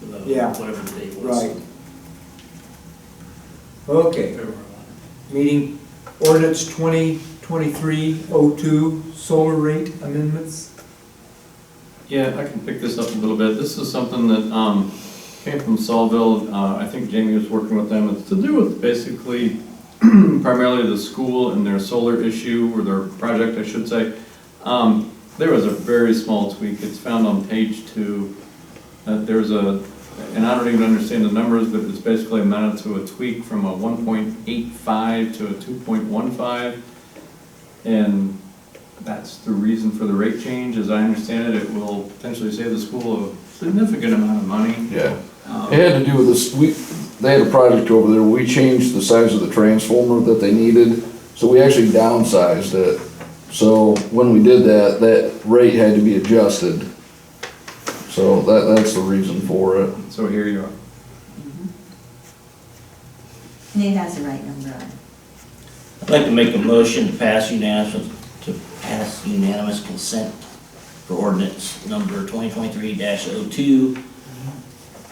the- Yeah. whatever the date was. Right. Okay, February meeting ordinance twenty twenty-three oh two, solar rate amendments. Yeah, I can pick this up a little bit. This is something that um, came from Saulville. Uh, I think Jamie was working with them. It's to do with basically primarily the school and their solar issue, or their project, I should say. Um, There was a very small tweak. It's found on page two. Uh, There's a, and I don't even understand the numbers, but it's basically amounted to a tweak from a 1.85 to a 2.15. And that's the reason for the rate change, as I understand it, it will potentially save the school a significant amount of money. Yeah, Um, it had to do with this, we, they had a project over there, we changed the size of the transformer that they needed, so we actually downsized it. So when we did that, that rate had to be adjusted. So that, that's the reason for it. So here you are. Nate has the right number on it. I'd like to make a motion to pass unanimous, to pass unanimous consent for ordinance number 2023-02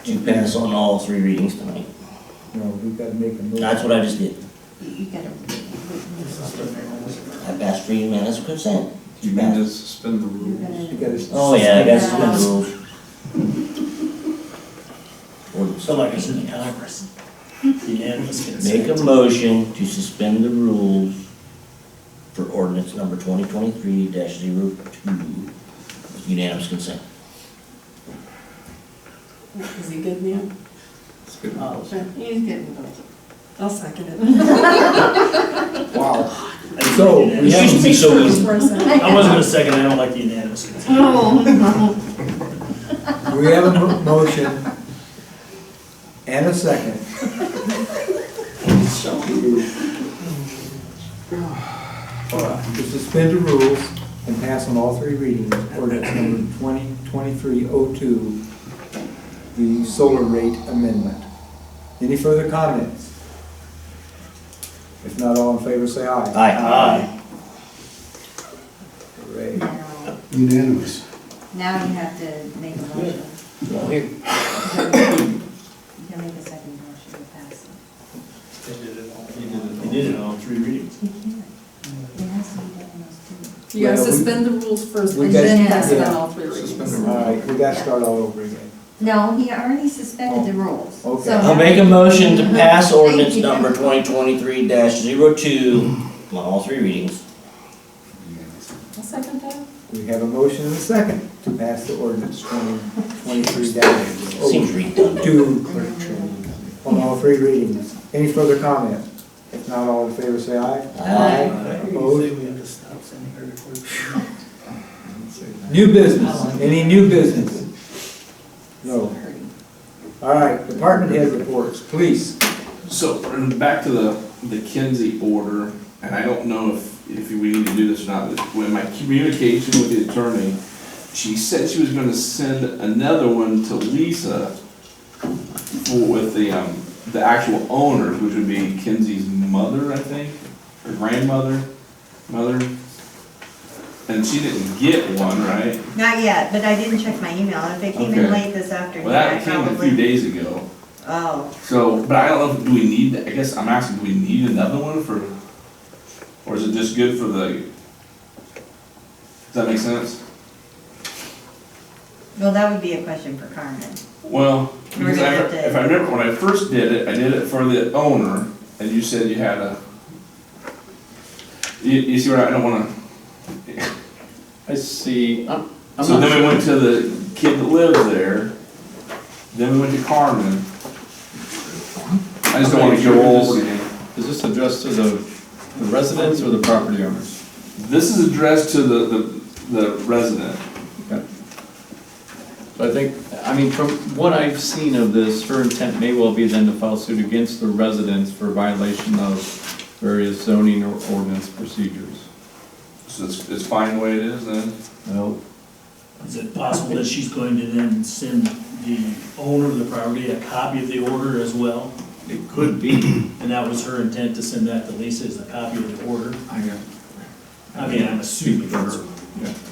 to pass on all three readings tonight. No, we've got to make a motion. That's what I just did. You you gotta. I passed for unanimous consent. You can just suspend the rules. You gotta- Oh, yeah, I guess I'm in the rules. Ordinance. Unanimous Make consent. a motion to suspend the rules for ordinance number 2023-02 with unanimous consent. Is he good, man? It's good. Oh, He's good. I'll second it. Wow, I didn't So, do that. It used to be so easy. For a second. I wasn't gonna second, I don't like the unanimous consent. Oh, no. we have a mo- motion and a second. To suspend the rules and pass on all three readings, ordinance number twenty twenty-three oh two, the solar rate amendment. Any further comments? If not, all in favor, say aye. Aye. Hooray. Now Unanimous. now you have to make a motion. Well, here. You can make a second motion to pass it. They did it all. They did it all in three readings. You can't. It has to be done in those two. You gotta Well, we- suspend the rules first we and gotta- then pass it yeah. on all three readings. All right, we gotta start all over again. No, he already suspended the rules. Okay. So- I'll make a motion to pass Thank ordinance you. number twenty twenty-three 2 on all three readings. I'll second that. We have a motion and a second to pass the ordinance twenty twenty-three oh Seems redundant. two on all three readings. Any further comment? If not, all in favor, say aye. Aye. Opposed? we have to stop sending her reports. New business, any new business? No. All right, department head reports, please. So, and back to the, the Kinsey order, and I don't know if, if we need to do this or not, but when my communication with the attorney, she said she was gonna send another one to Lisa for, with the, um, the actual owners, which would be Kinsey's mother, I think, or grandmother, mother. And she didn't get one, right? Not yet, but I didn't check my email. If it came in Okay. late this afternoon, Well, I that came a few probably. days ago, Oh, so, but I don't know, if do we need, I guess I'm asking, do we need another one for, or is it just good for the, does that make sense? well, that would be a question for Carmen. Well, We're because I, gonna have to- if I remember, when I first did it, I did it for the owner, and you said you had a, you, you see what, I I don't wanna, I see, I'm, I'm so not then we sure. went to the kid that lives there, then we went to Carmen. I just don't wanna go over it again. Is this addressed to the the residents or the property owners? This is addressed to the, the, the resident. But I think, I mean, from what I've seen of this, her intent may well be then to file suit against the residents for violation of various zoning or ordinance procedures. So it's, it's fine the way it is then? Well, Is it possible that she's going to then send the owner of the property a copy of the order as well? it could be. And that was her intent to send that to Lisa as a copy of the order? I know. I mean, I'm assuming Speak for that's. her.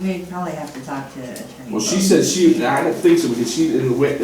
We'd probably have to talk to attorney. Well, she said she, I don't think so because she didn't wait,